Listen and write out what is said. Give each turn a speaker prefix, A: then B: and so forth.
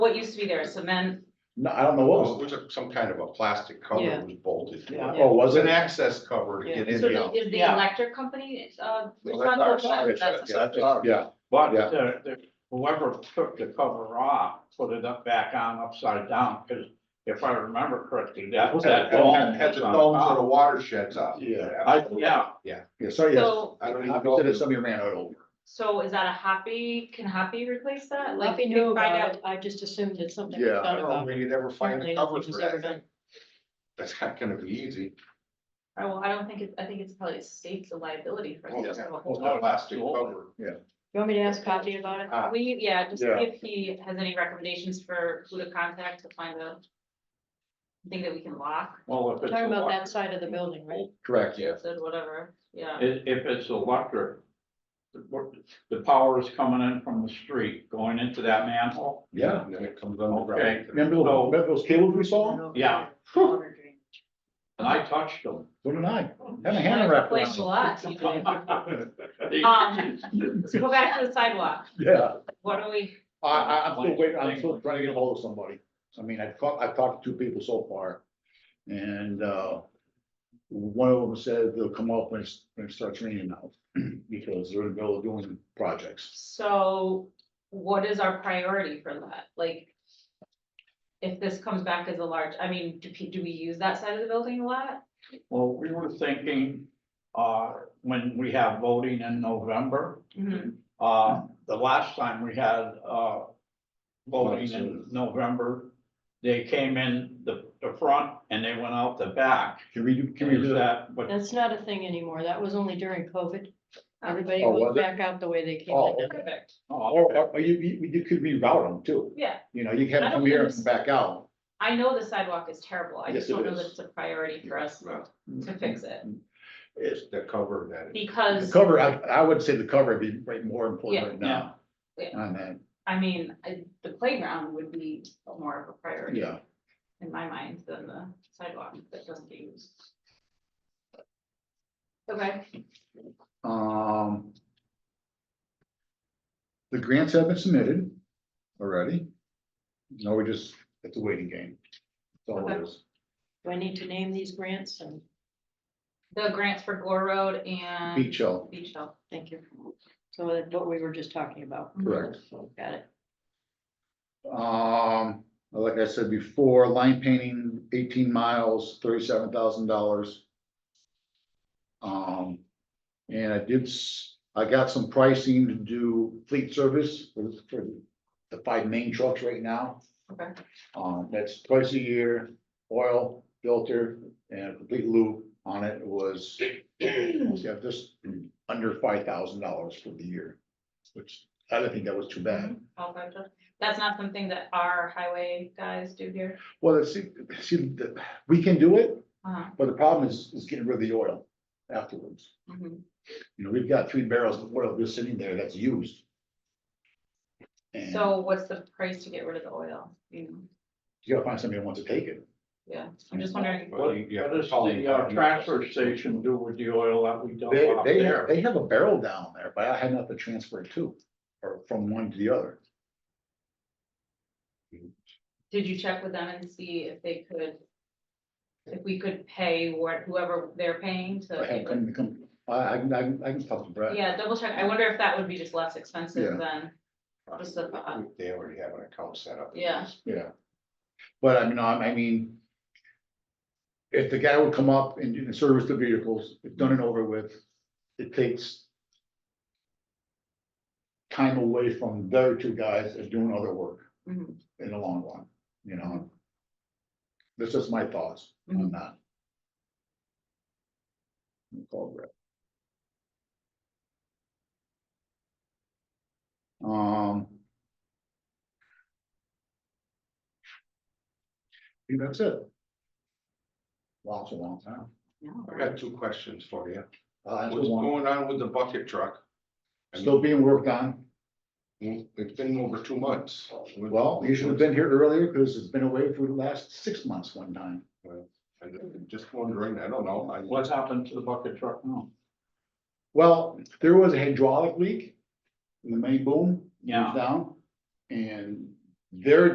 A: What used to be there, cement,
B: No, I don't know what
C: Well,
B: was,
C: it was a- some kind of a plastic cover
D: Yeah.
C: that was bolted. to
B: Yeah.
C: it.
B: oh,
C: It
B: was
C: was an
B: it?
C: access cover to
D: Yeah.
C: get
A: so
C: in and out.
A: the- is the
E: Yeah.
A: electric company, uh,
C: Well, that's
A: responsible
C: our
A: for
C: side,
A: that? That's-
C: yeah.
B: That's ours. Yeah,
E: But
C: Yeah.
E: the, the, whoever took the cover off, put it up back on upside down, because if I remember correctly, that was that.
C: Had- had- Had the domes or the watersheds up.
B: Yeah.
E: I, yeah,
B: yeah, so yes.
A: So,
C: I don't even know.
B: Obviously,
C: if
B: there's
C: it-
B: somebody ran it over.
A: so is that a Hoppy, can Hoppy replace that? Like,
D: Lucky
A: can
D: knew
A: you find
D: about
A: out?
D: it, I just assumed it's something we
B: Yeah,
C: I
D: thought
C: don't know,
D: about.
C: we could ever find
D: Apparently
C: the
D: nothing
C: covers
D: was
C: for
D: ever
C: that
D: done.
C: thing. That's not gonna be easy.
A: Oh, well, I don't think it, I think it's probably states a liability for
C: Well,
A: us.
C: yeah, Oh,
A: to have a
C: well,
A: whole-
C: that Plastic
E: Absolutely.
C: cover.
D: You want me to ask Kathy about
B: Uh,
D: it?
C: Ah,
A: We, yeah, just
B: Yeah.
A: see if he has any recommendations for who to contact to find a thing that we can lock,
E: well, if it's.
D: Talking about
E: elec-
D: that side of the building, right?
B: Correct, yeah.
A: said whatever, yeah.
E: If, if it's electric, the, what- the power is coming in from the street, going into that manhole.
B: Yeah.
C: And then it comes on. the
E: Okay.
C: ground.
B: Remember those,
E: So-
B: remember those cables we saw?
E: Yeah.
D: Water drain.
E: And I touched them.
B: So did I. Had a hand wrapped
A: Place a
B: around
A: lot, you know.
E: Um,
A: Um, Let's go back to the sidewalk.
B: it. Yeah,
A: What do we,
B: I, I, I'm still waiting, I'm still trying to get hold of somebody. I mean, I've talked, I've talked to two people so far. And, uh, one of them said they'll come up when it's- when it starts raining now, because they're in the middle of doing projects.
A: so what is our priority for that? Like, if this comes back as a large, I mean, do, pe- do we use that side of the building a lot?
E: Well, we were thinking, uh, when we have voting in November, Uh, the last time we had, uh, voting in November, they came in the, the front and they went out the back.
B: Can we do, can we
E: Is
B: do that?
E: that, but
D: That's not a thing anymore. That was only during COVID. Everybody
B: Oh,
D: went
B: was it?
D: back out the way they came
B: Oh,
D: in.
B: okay.
A: Perfect,
B: Or,
E: oh,
B: or you, you, you could reroute them too.
A: yeah.
B: You know, you can have them come here and come back out.
A: I know the sidewalk is terrible. I
B: Yes,
A: just
B: it
A: don't know
B: is.
A: that it's a priority for us
C: No,
A: to fix it.
C: It's the cover that.
B: The
A: Because,
B: cover, I, I would say the cover would be right more important right now.
A: Yeah. Yeah.
B: On that,
A: I mean, I- the playground would be more of a priority
B: yeah.
A: in my mind than the sidewalk that doesn't get used. Okay,
B: Um. The grants have been submitted already. No, we just, it's a waiting game. That's all it is.
D: Do I need to name these grants? And
A: the grants for Gore Road and.
B: Beach Hill,
A: Beach Hill.
D: thank you. So that's what we were just talking about.
B: correct.
D: Got it.
B: Um, like I said before, line painting eighteen miles, thirty-seven thousand dollars. Um, and I did, s- I got some pricing to do fleet service for, for the five main trucks right now.
A: Okay.
B: Um, that's twice a year, oil filter and a complete loop on it was, yeah, just under five thousand dollars for the year. Which I don't think that was too bad.
A: All five trucks. That's not something that our highway guys do here.
B: Well, see, see, the- we can do it,
A: Uh-huh.
B: but the problem is, is getting rid of the oil afterwards.
A: Mhm.
B: You know, we've got three barrels of oil just sitting there that's used. And
A: So what's the price to get rid of the oil? You know,
B: you gotta find somebody who wants to take it.
A: yeah, I'm just wondering.
E: what, what does the uh, transfer station do with the oil that we dump
B: They,
E: out
B: they,
E: there?
B: have- they have a barrel down there, but I had enough to transfer it to, or from one to the other.
A: Did you check with them and see if they could? If we could pay what whoever they're paying
B: I
A: to,
B: had come, come, I, I can, I can, I can talk to Brad.
A: yeah, double check. I wonder if that would be just less expensive
B: Yeah.
A: than, Just the- uh,
C: They already have an account set up.
A: Yeah.
B: Yeah. But I mean, I, I mean. If the guy would come up and do- and service the vehicles, it's done and over with, it takes. Time away from their two guys that's doing other work
A: Mhm.
B: in the long run, you know? That's just my thoughts on
A: Mhm.
B: that. I'll Call Brett. Um. I think that's it. Wow, it's a long time.
A: no,
C: I got two questions for you.
B: Uh, that's
C: What's
B: a long-
C: going on with the bucket truck?
B: Still being worked on.
C: It's been over two months.
B: Well, you should have been here earlier because it's been away for the last six months one time.
C: I'm Just wondering, I don't know, I
E: What's happened to the bucket truck now?
B: Well, there was a hydraulic leak in the main boom.
E: Yeah.
B: Down. And their